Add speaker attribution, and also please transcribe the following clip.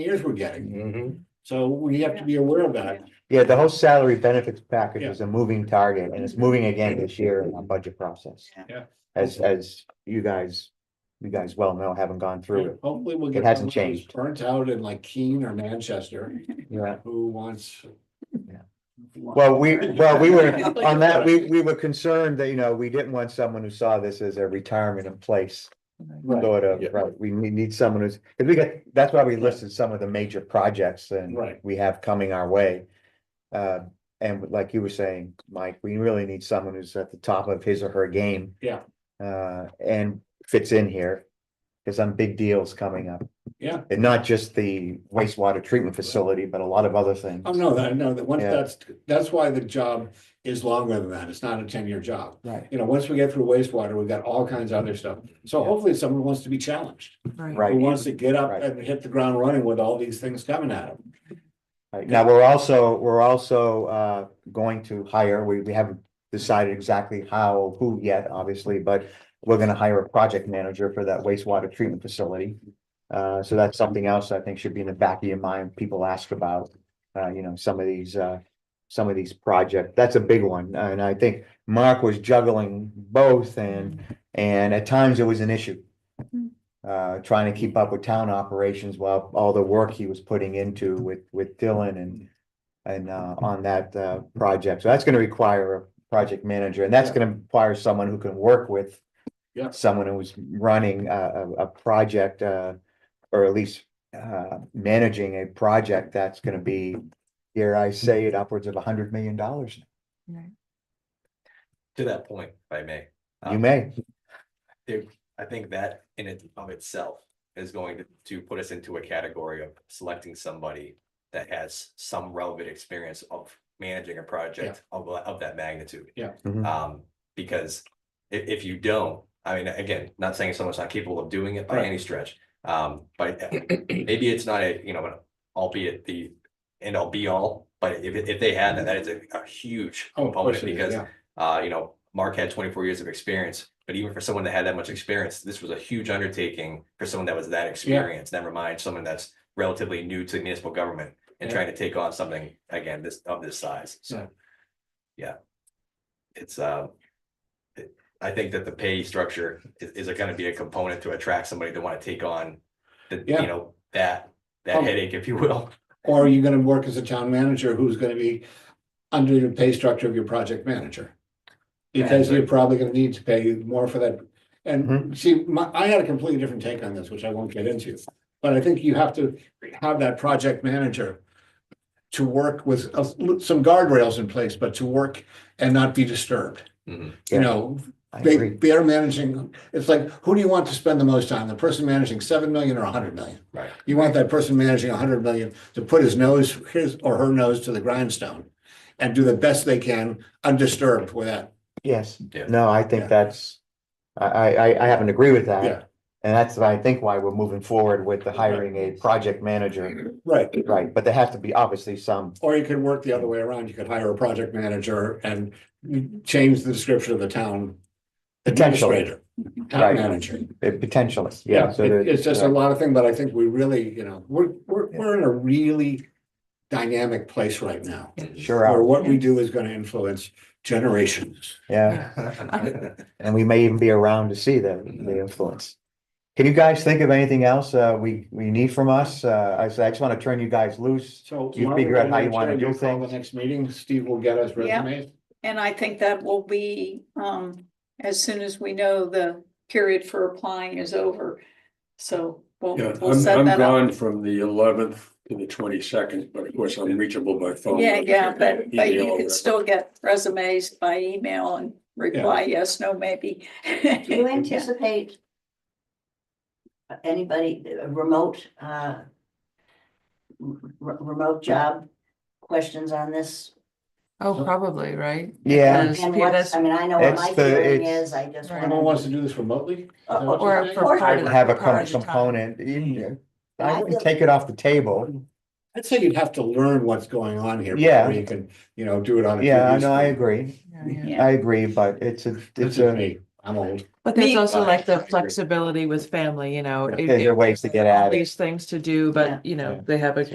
Speaker 1: years we're getting.
Speaker 2: Mhm.
Speaker 1: So we have to be aware of that.
Speaker 2: Yeah, the whole salary benefits package
Speaker 1: Yeah.
Speaker 2: is a moving target and it's moving again this year in our budget process.
Speaker 3: Yeah.
Speaker 1: Yeah.
Speaker 2: As, as you guys, you guys well know, haven't gone through
Speaker 1: Hopefully we'll get.
Speaker 2: It hasn't
Speaker 1: someone who's
Speaker 2: changed.
Speaker 1: Burnt out in like Keene or Manchester
Speaker 2: it. Yeah.
Speaker 1: who wants.
Speaker 2: Yeah. Well, we, well, we were, on that, we, we were concerned that, you know, we didn't want someone who saw this as a retirement in place.
Speaker 1: Right,
Speaker 2: Sort of,
Speaker 4: Yeah.
Speaker 2: right, we need, need someone who's, because we got, that's why we listed some of the major projects and
Speaker 1: Right.
Speaker 2: we have coming our way. Uh, and like you were saying, Mike, we really need someone who's at the top of his or her game.
Speaker 1: Yeah.
Speaker 2: Uh, and fits in here, because some big deals coming up,
Speaker 1: yeah.
Speaker 2: and not just the wastewater treatment facility, but a lot of other things.
Speaker 1: Oh, no, that, no, that once
Speaker 2: Yeah.
Speaker 1: that's, that's why the job is longer than that. It's not a ten-year job.
Speaker 2: Right.
Speaker 1: You know, once we get through wastewater, we've got all kinds of other stuff. So
Speaker 2: Yeah.
Speaker 1: hopefully someone wants to be challenged. Who
Speaker 2: Right,
Speaker 1: wants to get up
Speaker 2: Right.
Speaker 1: and hit the ground running with all these things coming at them.
Speaker 2: right. now, we're also, we're also, uh, going to hire, we, we haven't decided exactly how, who yet, obviously, but we're gonna hire a project manager for that wastewater treatment facility. Uh, so that's something else I think should be in the back of your mind, people ask about, uh, you know, some of these, uh, some of these projects, that's a big one, and I think Mark was juggling both and, and at times it was an issue. Uh, trying to keep up with town operations while all the work he was putting into with, with Dylan and, and, uh, on that, uh, project, so that's gonna require a project manager, and that's gonna require someone who can work with
Speaker 1: Yeah.
Speaker 2: someone who's running a, a, a project, uh, or at least, uh, managing a project that's gonna be, dare I say it, upwards of a hundred million dollars.
Speaker 4: To that point, if I may.
Speaker 2: You
Speaker 4: um,
Speaker 2: may,
Speaker 4: I think that in it of itself is going to, to put us into a category of selecting somebody that has some relevant experience of managing a project of, of that magnitude.
Speaker 1: Yeah.
Speaker 2: Mhm.
Speaker 4: Um, because i- if you don't, I mean, again, not saying someone's not capable of doing it by
Speaker 1: Right.
Speaker 4: any stretch. Um, but maybe it's not a, you know, an albeit the end all be all, but if, if they had that, that is a, a huge
Speaker 1: Oh, of course it
Speaker 4: component
Speaker 1: is,
Speaker 4: because
Speaker 1: yeah.
Speaker 4: uh, you know, Mark had twenty-four years of experience, but even for someone that had that much experience, this was a huge undertaking for someone that was that experienced, never mind someone that's relatively new to municipal government and
Speaker 1: Yeah.
Speaker 4: trying to take on something, again, this, of this size,
Speaker 1: Yeah.
Speaker 4: so. Yeah. It's, uh, it- I think that the pay structure is, is gonna be a component to attract somebody to wanna take on the,
Speaker 1: Yeah.
Speaker 4: you know, that, that
Speaker 1: Um,
Speaker 4: headache, if you will.
Speaker 1: Or are you gonna work as a town manager who's gonna be under the pay structure of your project manager? Because you're probably gonna need to pay more for that.
Speaker 2: Mm-hmm.
Speaker 1: And see, my, I had a completely different take on this, which I won't get into. But I think you have to have that project manager to work with a- some guardrails in place, but to work and not be disturbed.
Speaker 4: Mhm.
Speaker 2: Mm-hmm. Yeah.
Speaker 1: You know,
Speaker 2: I
Speaker 1: they,
Speaker 2: agree,
Speaker 1: they're managing, it's like, who do you want to spend the most time? The person managing seven million or a hundred million?
Speaker 4: Right.
Speaker 1: You want that person managing a hundred million to put his nose, his or her nose to the grindstone and do the best they can undisturbed with that.
Speaker 2: yes,
Speaker 4: Yeah.
Speaker 2: no, I
Speaker 1: Yeah.
Speaker 2: think that's, I, I, I- I happen to agree with
Speaker 1: Yeah.
Speaker 2: that. And that's, I think, why we're moving forward with the hiring a project manager,
Speaker 1: Right.
Speaker 2: right, but there has to be obviously some,
Speaker 1: Or you could work the other way around. You could hire a project manager and change the description of the town
Speaker 2: Potentially.
Speaker 1: administrator, town
Speaker 2: Right.
Speaker 1: manager.
Speaker 2: uh, potentially, yeah.
Speaker 1: Yeah,
Speaker 2: so
Speaker 1: it-
Speaker 2: there-
Speaker 1: it's just a
Speaker 2: right.
Speaker 1: lot of thing, but I think we really, you know, we're, we're, we're in a really dynamic place right now.
Speaker 2: Sure,
Speaker 1: Where
Speaker 2: are.
Speaker 1: what we do is gonna influence generations.
Speaker 2: yeah, and we may even be around to see the,
Speaker 1: Mm-hmm.
Speaker 2: the influence. Can you guys think of anything else, uh, we, we need from us? Uh, I, so I just wanna turn you guys loose.
Speaker 1: So.
Speaker 2: You
Speaker 1: Margaret,
Speaker 2: figure out
Speaker 1: I'm
Speaker 2: how you
Speaker 1: gonna
Speaker 2: wanna
Speaker 1: tell
Speaker 2: do
Speaker 1: you'll call
Speaker 2: things.
Speaker 1: The next meeting, Steve will get us
Speaker 3: Yeah.
Speaker 1: resumes.
Speaker 3: And I think that will be, um, as soon as we know the period for applying is over. So we'll,
Speaker 5: Yeah,
Speaker 3: we'll
Speaker 5: I'm,
Speaker 3: set
Speaker 5: I'm
Speaker 3: that up.
Speaker 5: gone from the eleventh to the twenty-second, but of course I'm reachable by phone.
Speaker 3: Yeah, yeah, but, but
Speaker 5: Email
Speaker 3: you
Speaker 5: or
Speaker 3: can
Speaker 5: whatever.
Speaker 3: still get resumes by email and reply yes, no, maybe.
Speaker 6: Do you anticipate anybody, a remote, uh, re- remote job questions on this?
Speaker 7: Oh, probably, right?
Speaker 2: Yeah.
Speaker 7: Because
Speaker 6: And
Speaker 7: pe-
Speaker 6: what's,
Speaker 7: that's-
Speaker 6: I mean, I know what
Speaker 2: That's
Speaker 6: my
Speaker 2: the-
Speaker 6: feeling
Speaker 2: it's-
Speaker 6: is, I just
Speaker 7: Right.
Speaker 6: want
Speaker 1: Someone wants to do this remotely? Is that what
Speaker 7: Or
Speaker 1: you're saying?
Speaker 7: for part of.
Speaker 6: I'd
Speaker 7: the-
Speaker 2: have a
Speaker 7: part
Speaker 2: com-
Speaker 7: of the time.
Speaker 2: component,
Speaker 1: Mm-hmm.
Speaker 2: you-
Speaker 6: I
Speaker 2: I wouldn't
Speaker 6: feel-
Speaker 2: take it off the table.
Speaker 1: I'd say you'd have to learn what's going on here.
Speaker 2: Yeah.
Speaker 1: Before you can, you know, do it on. a
Speaker 2: Yeah,
Speaker 1: TV
Speaker 2: no, I
Speaker 1: screen.
Speaker 2: agree.
Speaker 7: Yeah, yeah.
Speaker 3: Yeah.
Speaker 2: I agree, but it's a,
Speaker 1: This
Speaker 2: it's
Speaker 1: is
Speaker 2: a,
Speaker 1: me. I'm old.
Speaker 7: But there's
Speaker 6: Me-
Speaker 7: also like
Speaker 4: I
Speaker 7: the
Speaker 4: agree.
Speaker 7: flexibility with family, you know.
Speaker 2: Yeah,
Speaker 7: it-
Speaker 2: there are
Speaker 7: it-
Speaker 2: ways to get at it.
Speaker 7: These things to do,
Speaker 6: Yeah.
Speaker 7: but you know, they have a